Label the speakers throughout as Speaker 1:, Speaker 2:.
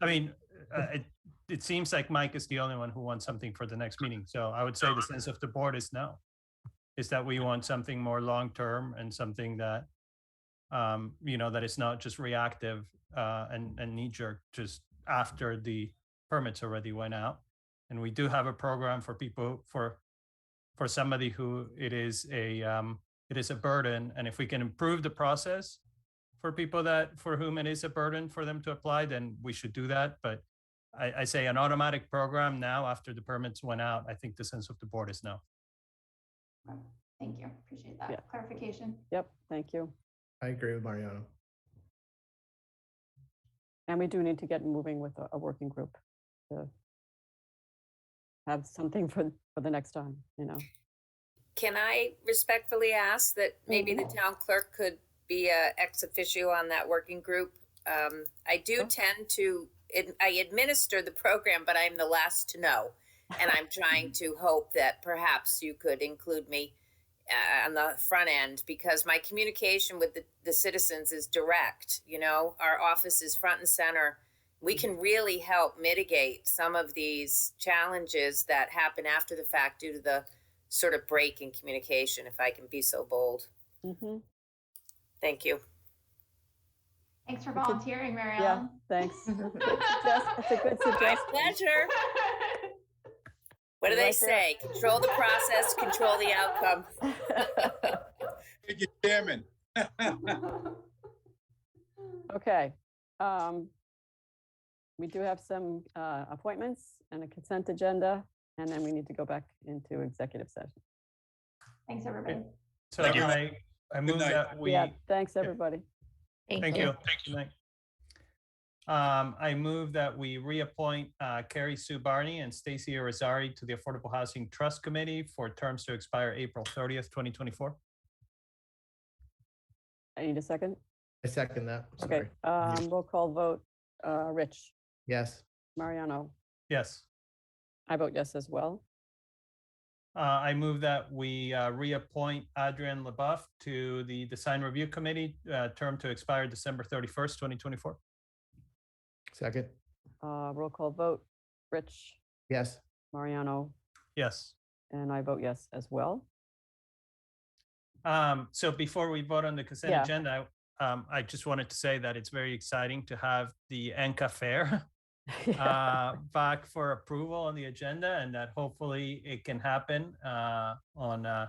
Speaker 1: I mean, uh, it, it seems like Mike is the only one who wants something for the next meeting. So I would say the sense of the board is no. Is that we want something more long-term and something that, um, you know, that is not just reactive, uh, and, and knee-jerk just after the permits already went out. And we do have a program for people, for, for somebody who it is a, um, it is a burden. And if we can improve the process, for people that for whom it is a burden for them to apply, then we should do that. But I, I say an automatic program now after the permits went out, I think the sense of the board is no.
Speaker 2: Right. Thank you. Appreciate
Speaker 3: Yeah.
Speaker 2: that clarification.
Speaker 3: Yep, thank you.
Speaker 4: I agree with Mariano.
Speaker 3: And we do need to get moving with a, a working group to have something for, for the next time, you know?
Speaker 5: Can I respectfully ask that maybe the town clerk could be a ex officio on that working group? Um, I do
Speaker 3: Sure.
Speaker 5: tend to, ad- I administer the program, but I'm the last to know. And I'm trying to hope that perhaps you could include me uh, on the front end because my communication with the, the citizens is direct, you know, our office is front and center. We can really help mitigate some of these challenges that happen after the fact due to the sort of break in communication, if I can be so bold.
Speaker 3: Mhm.
Speaker 5: Thank you.
Speaker 2: Thanks for
Speaker 3: It's a-
Speaker 2: volunteering, Mary
Speaker 3: Yeah,
Speaker 2: Ellen.
Speaker 3: thanks. Yes, It's a good suggestion.
Speaker 5: Pleasure. What do
Speaker 3: Right
Speaker 5: they
Speaker 3: there.
Speaker 5: say? Control the process, control the outcome.
Speaker 6: Thank you, Chairman.
Speaker 3: Okay. um, We do have some uh, appointments and a consent agenda, and then we need to go back into executive session.
Speaker 2: Thanks, everybody.
Speaker 1: So
Speaker 6: Thank you.
Speaker 1: I, I move
Speaker 6: night.
Speaker 1: that we,
Speaker 3: Yeah, thanks, everybody.
Speaker 1: thank you. Good night. Um, I move that we reappoint uh, Carrie Sue Barney and Stacy Irizarry to the Affordable Housing Trust Committee for terms to expire April 30th, 2024.
Speaker 3: I need a second.
Speaker 4: I second that.
Speaker 3: Okay,
Speaker 4: Sorry.
Speaker 3: um, roll call vote. Uh, Rich,
Speaker 4: Yes.
Speaker 3: Mariano,
Speaker 1: Yes.
Speaker 3: I vote yes as well.
Speaker 1: Uh, I move that we uh, reappoint Adrian LaBeouf to the Design Review Committee, uh, term to expire December 31st, 2024.
Speaker 4: Second.
Speaker 3: Uh, Roll call vote. Rich,
Speaker 4: Yes.
Speaker 3: Mariano,
Speaker 1: Yes.
Speaker 3: and I vote yes as well.
Speaker 1: Um, So before we vote on the consent
Speaker 3: Yeah.
Speaker 1: agenda, um, I just wanted to say that it's very exciting to have the ENCA Fair uh, back for approval on the agenda and that hopefully it can happen uh, on, uh,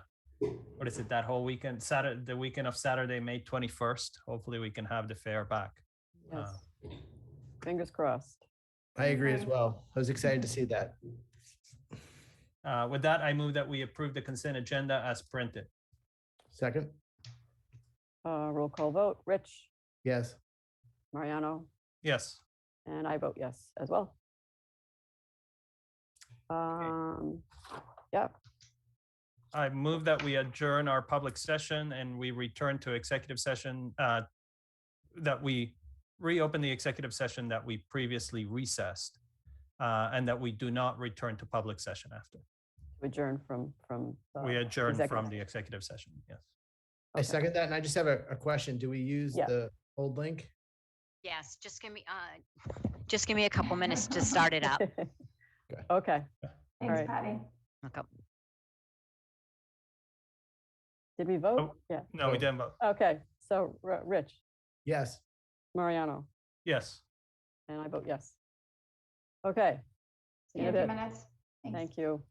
Speaker 1: what is it, that whole weekend, Saturday, the weekend of Saturday, May 21st. Hopefully we can have the fair back.
Speaker 3: Yes. Fingers crossed.
Speaker 4: I agree as well. I was excited to
Speaker 3: Mm-hmm.
Speaker 4: see that.
Speaker 1: Uh, With that, I move that we approve the consent agenda as printed.
Speaker 4: Second.
Speaker 3: Uh, Roll call vote. Rich,
Speaker 4: Yes.
Speaker 3: Mariano,
Speaker 1: Yes.
Speaker 3: and I vote yes as well. Um, Yep,
Speaker 1: I move that we adjourn our public session and we return to executive session, uh, that we reopen the executive session that we previously recessed, uh, and that we do not return to public session after.
Speaker 3: adjourn from, from. uh,
Speaker 1: We adjourn
Speaker 3: executive
Speaker 1: from the executive session, yes.
Speaker 4: I
Speaker 3: Okay.
Speaker 4: second that. And I just have a, a question. Do we use
Speaker 3: Yeah.
Speaker 4: the old link?
Speaker 7: Yes, just give me, uh, just give me a couple minutes to start it up.
Speaker 3: Okay,
Speaker 2: Thanks,
Speaker 3: right.
Speaker 2: Patty.
Speaker 7: Okay.
Speaker 3: did we
Speaker 1: Oh.
Speaker 3: vote? Yeah,
Speaker 1: No, we
Speaker 4: So-
Speaker 1: didn't vote.
Speaker 3: okay, so R- Rich,
Speaker 4: Yes.
Speaker 3: Mariano,
Speaker 1: Yes.
Speaker 3: and I vote yes. Okay.
Speaker 2: See you in a
Speaker 3: Did
Speaker 2: few
Speaker 3: it.
Speaker 2: minutes. Thanks.
Speaker 3: Thank you.